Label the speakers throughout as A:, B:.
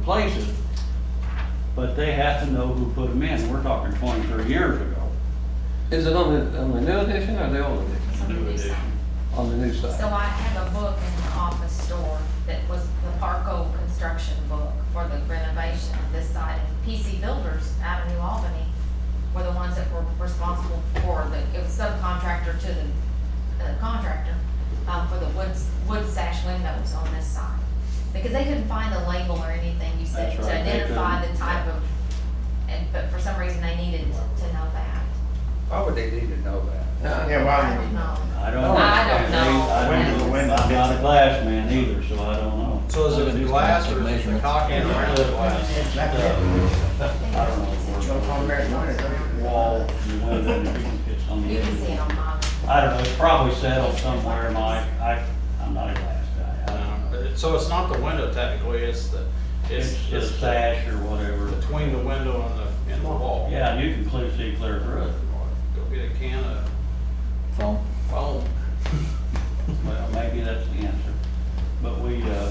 A: places, but they have to know who put them in. We're talking 20, 30 years ago.
B: Is it on the, on the new edition or the old edition?
C: It's on the new side.
B: On the new
C: So
B: side?
C: I have a book in the office store that was the Parco construction book for the renovation of this site. And PC Builders out of New Albany were the ones that were responsible for the, it was subcontractor to the uh, contractor, um, for the woods, wood sash windows on this side. Because they couldn't find the label or anything you said
A: That's
C: to
A: right, they
C: identify
A: couldn't.
C: the type of, and, but for some reason they needed to know that.
D: Why would they need to know that?
E: Yeah,
C: I
E: why
C: don't
E: would
C: know.
A: I don't know.
C: I don't know.
A: I don't know.
E: Window,
A: I'm not a
E: window.
A: glass man either, so I don't know.
F: So is it a glass or is it a cock and a glass?
A: I don't know. Wall, the window, it's on the
C: You can see it
A: edge.
C: on mine.
A: I don't know, it's probably settled somewhere, Mike. I, I'm not a glass guy. I
F: No,
A: don't know.
F: Um, but it- So it's not the window technically, it's the, it's,
A: It's a
F: it's
A: sash or whatever.
F: between the window and the, and the wall.
A: Yeah, you can clear, see clear through it.
F: Go get a can of
B: Phone?
F: foam.
A: Well, maybe that's the answer. But we, uh,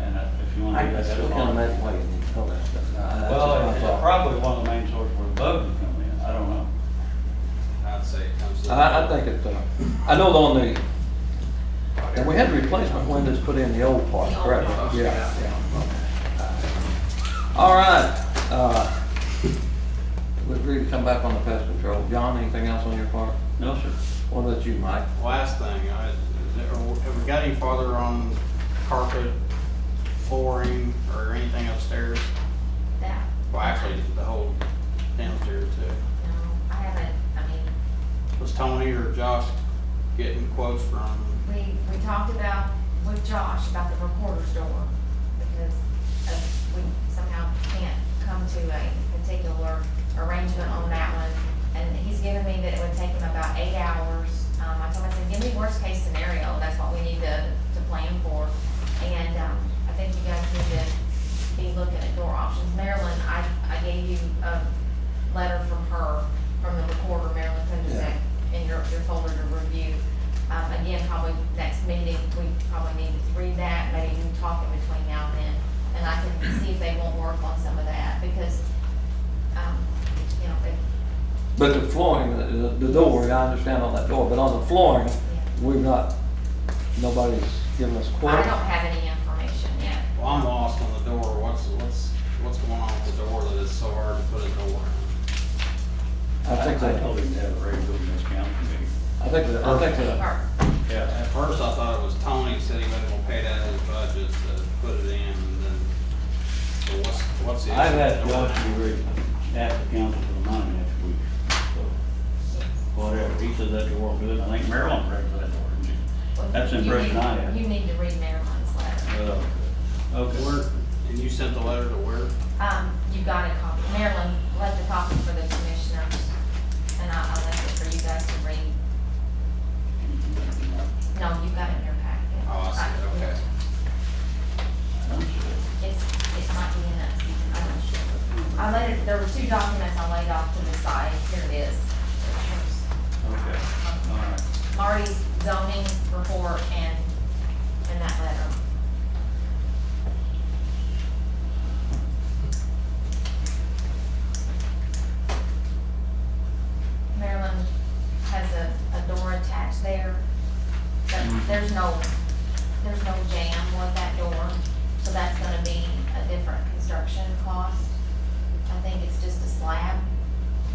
A: and uh, if you want to
B: I
A: do that, that's
B: still
A: one
B: can't
A: of the.
B: imagine why you need to know that stuff. That's
A: Well,
B: just my
A: it's
B: thought.
A: probably one of the main sources where the bugs would come in. I don't know.
F: I'd say it comes to.
B: I, I think it, uh, I know on the, and we had replacement windows put in the old part,
C: The old
B: correct?
C: part.
B: Yeah, yeah. All right, uh, we agreed to come back on the pest control. John, anything else on your part?
A: No, sir.
B: What about you, Mike?
F: Last thing, I, have we got any farther on carpet, flooring, or anything upstairs?
C: That.
F: Well, actually, the whole downstairs too.
C: No, I haven't, I mean,
F: Was Tony or Josh getting quotes from
C: we, we talked about with Josh about the recorder's door because uh, we somehow can't come to a particular arrangement on that one. And he's given me that it would take him about eight hours. Um, I told him, I said, give me worst case scenario. That's what we need to, to plan for. And, um, I think you guys need to be looking at door options. Marilyn, I, I gave you a letter from her, from the recorder, Marilyn Kuznec, in your, your folder to review. Um, again, probably next meeting, we probably need to read that, maybe we talk in between now and then. And I can see if they won't work on some of that, because, um, you know, it,
B: But the flooring, the, the door, I understand on that door, but on the flooring,
C: yeah.
B: we've not, nobody's given us
C: I
B: quotes.
C: don't have any information yet.
F: Well, I'm lost on the door. What's, what's, what's going on with the door that it's so hard to put a door in?
B: I think
A: I told
B: that,
A: him to have a regular business council meeting.
B: I think that, I think that,
C: Or-
A: Yeah.
F: At first, I thought it was Tony said he wasn't gonna pay that out of his budget to put it in, and then, so what's, what's the issue?
A: I've had
F: with the door
A: Josh
F: now?
A: be re- ask the council for the money next week, so whatever. He says that door won't do it. I think Marilyn breaks that door, didn't she?
C: well,
A: That's the
C: you
A: impression
C: need-
A: I have.
C: You need to read Marilyn's letter.
A: Uh, Okay.
F: Where, and you sent the letter to where?
C: Um, you got a copy. Marilyn left a copy for the commissioners, and I, I left it for you guys to read. No, you got it in your packet.
F: Oh, I see, okay.
C: It's, it might be in that, I'm not sure. I laid it, there were two documents I laid off to the side, here it is.
A: Okay, all right.
C: Marty's zoning report and, and that letter. Maryland has a, a door attached there, but there's no, there's no jam with that door, so that's gonna be a different construction cost. I think it's just a slab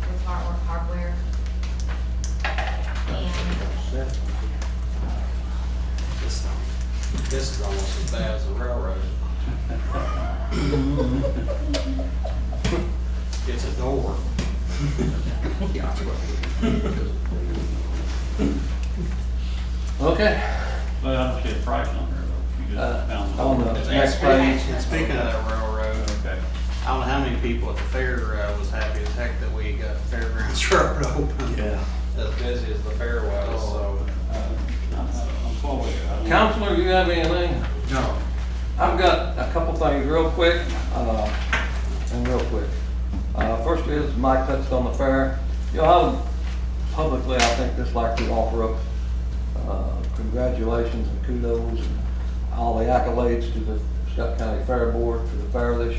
C: with hardware, hardware. And
F: This, this is almost as bad as the railroad. It's a door.
B: okay.
A: But I don't see a price on there though. You
B: Uh,
A: just found the-
B: on the next page,
F: And speaking of that railroad,
A: Okay.
F: I don't know how many people at the fair uh, was happy as heck that we got Fairgrounds Road open.
A: Yeah.
F: As busy as the fair was, so.
A: Uh,
B: Counselor, you have anything?
D: No.
B: I've got a couple things real quick, uh, and real quick. Uh, first is Mike touched on the fair. You know, I would publicly, I think, just like to offer up, uh, congratulations and kudos and all the accolades to the Scott County Fair Board for the fair this year.